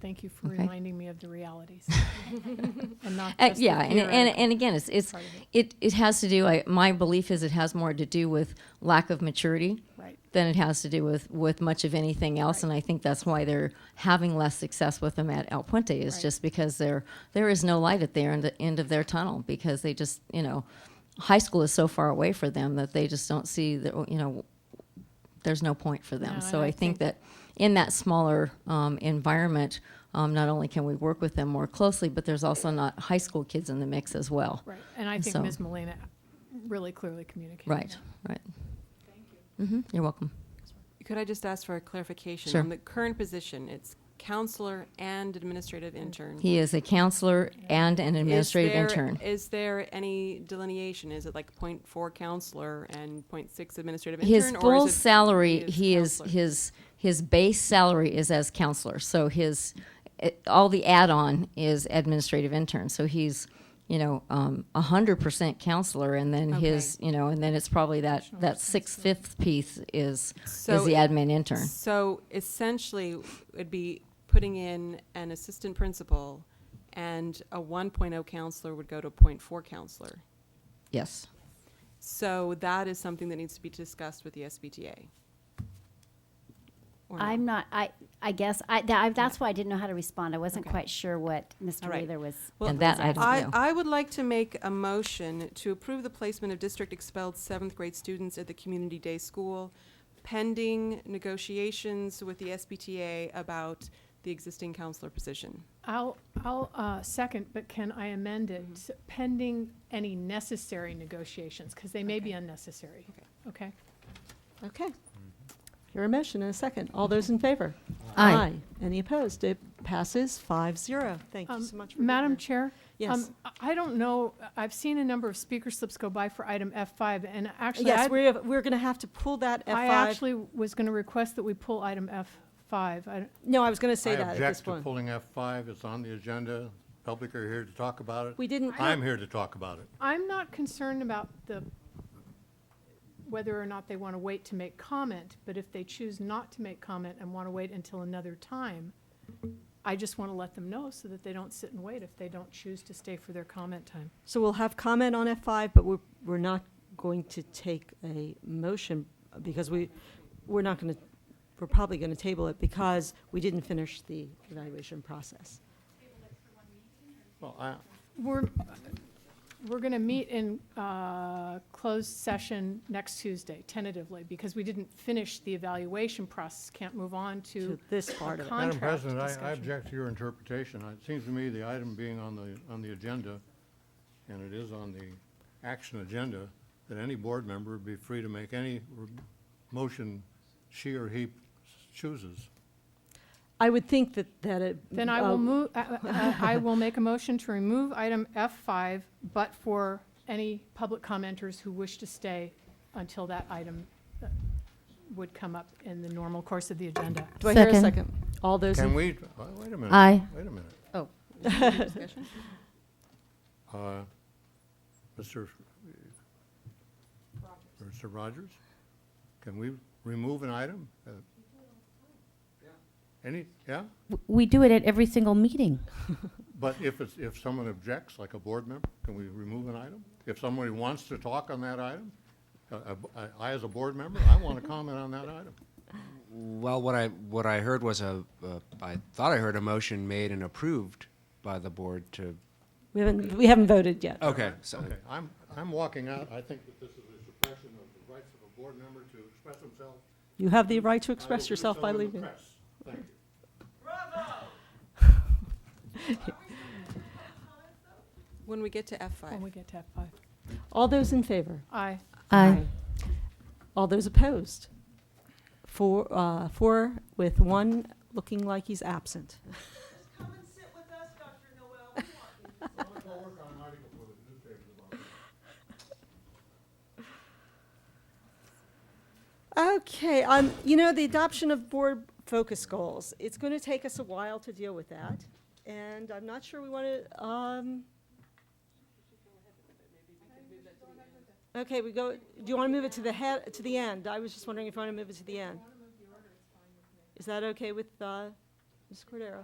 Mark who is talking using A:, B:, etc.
A: Thank you for
B: Okay.
A: reminding me of the realities. And not
B: Uh,
A: just the
B: yeah, and, and
A: theoretical
B: and again, it's it's
A: part of it.
B: it it has to do. I, my belief is it has more to do with lack of maturity
A: Right,
B: than it has to do with with much of anything else. And I think that's why they're having less success with them at El Puente is
A: Right.
B: just because there there is no light at the end, end of their tunnel because they just you know high school is so far away for them that they just don't see the you know there's no point for them.
A: No,
B: so
A: and
B: I,
A: I think-
B: think, that in that smaller um, environment. Um, not only can we work with them more closely, but there's also not high school kids in the mix as well.
A: right. And I think
B: So-
A: Ms. Molina really clearly communicated
B: Right,
A: that.
B: right. Thank you. You're welcome.
C: Could I just ask for a clarification?
B: Sure.
C: On the current position, it's counselor and administrative intern.
B: He is a counselor and an administrative
C: Is there-
B: intern.
C: Is there any delineation? Is it like point four counselor and point six administrative intern?
B: His
C: or
B: full
C: is it-
B: salary,
C: is
B: he is,
C: counselor?
B: his, his base salary is as counselor, so his, it- all the add-on is administrative intern, so he's, you know, um, a hundred percent counselor, and then his, you know, and then it's probably that, that six-fifth piece is, is
C: So
B: the
C: it-
B: admin intern.
C: So essentially, it'd be putting in an assistant principal, and a 1.0 counselor would go to a point four counselor.
B: Yes,
C: So that is something that needs to be discussed with the SBTA. Or no?
D: I'm not, I, I guess, I, that, I, that's why I didn't know how to respond. I wasn't
C: Okay.
D: quite sure what Mr.
C: All right.
D: Wheeler was.
C: Well,
B: And that I don't
C: I,
B: know.
C: I would like to make a motion to approve the placement of district expelled seventh grade students at the community day school pending negotiations with the SBTA about the existing counselor position.
A: I'll, I'll uh, second, but can I amend it
E: Mm-hmm.
A: pending any necessary negotiations? Because they may be unnecessary. Okay?
E: Okay. Hear a motion and a second. All those in favor?
B: Aye.
E: Any opposed? It passes five zero. Thank you
A: Um,
E: so much for being
A: Madam
E: here.
A: Chair?
E: Yes.
A: um, I I don't know, I've seen a number of speaker slips go by for item F5, and actually,
E: Yes,
A: I'd
E: we're, we're going to have to pull that
A: I
E: F5.
A: actually was going to request that we pull item F5. I-
E: No, I was going to say
F: I
E: that at this
F: object to
E: point.
F: pulling F5. It's on the agenda. Public are here to talk about it.
E: We didn't,
F: I'm here to talk about it.
A: I'm not concerned about the, whether or not they want to wait to make comment, but if they choose not to make comment and want to wait until another time, I just want to let them know so that they don't sit and wait if they don't choose to stay for their comment time.
E: so we'll have comment on F5, but we're, we're not going to take a motion because we, we're not going to, we're probably going to table it because we didn't finish the evaluation process.
F: Well, I,
A: We're, we're going to meet in uh, closed session next Tuesday tentatively because we didn't finish the evaluation process, can't move on
E: To
A: to
E: this part of it.
A: con-
F: Madam
A: Contract
F: President, I- I
A: discussion.
F: object to your interpretation. It seems to me the item being on the, on the agenda, and it is on the action agenda, that any board member would be free to make any r- motion she or he chooses.
E: I would think that, that it.
A: Then I
E: uh,
A: will move, uh, uh, uh, I will make a motion to remove item F5, but for any public commenters who wish to stay until that item uh, would come up in the normal course of the agenda.
E: Do I hear a
B: Second.
E: second? All those in
F: Can we, oh, wait a minute.
B: Aye.
F: Wait a minute.
C: Discussion?
F: Uh, Mr. Mr. Rogers, can we remove an item? Uh, Any, yeah?
G: W- We do it at every single meeting.
F: But if it's, if someone objects, like a board member, can we remove an item? If somebody wants to talk on that item, uh, uh, I- I, as a board member, I want to comment on that item.
H: Well, what I what I heard was a, a I thought I heard a motion made and approved by the board to. uh,
E: We haven't, we haven't voted yet.
H: Okay, so
F: Okay, I'm, I'm walking out. I think that this is a suppression of the rights of a board member to express himself.
E: You have the right to
F: I will
E: express
F: do
E: yourself
F: so
E: by
F: in the
E: leaving.
F: press. Thank you.
C: When we get to F5.
A: When we get to F5.
E: All those in favor?
A: Aye.
G: Aye.
E: All those opposed? Four, uh, four with one looking like he's absent. Okay, um, you know, the adoption of board focus goals, it's gonna take us a while to deal with that, and I'm not sure we wanna, um. Okay, we go, do you wanna move it to the head, to the end? I was just wondering if you wanna move it to the end. Is that okay with, uh, Ms. Cordero?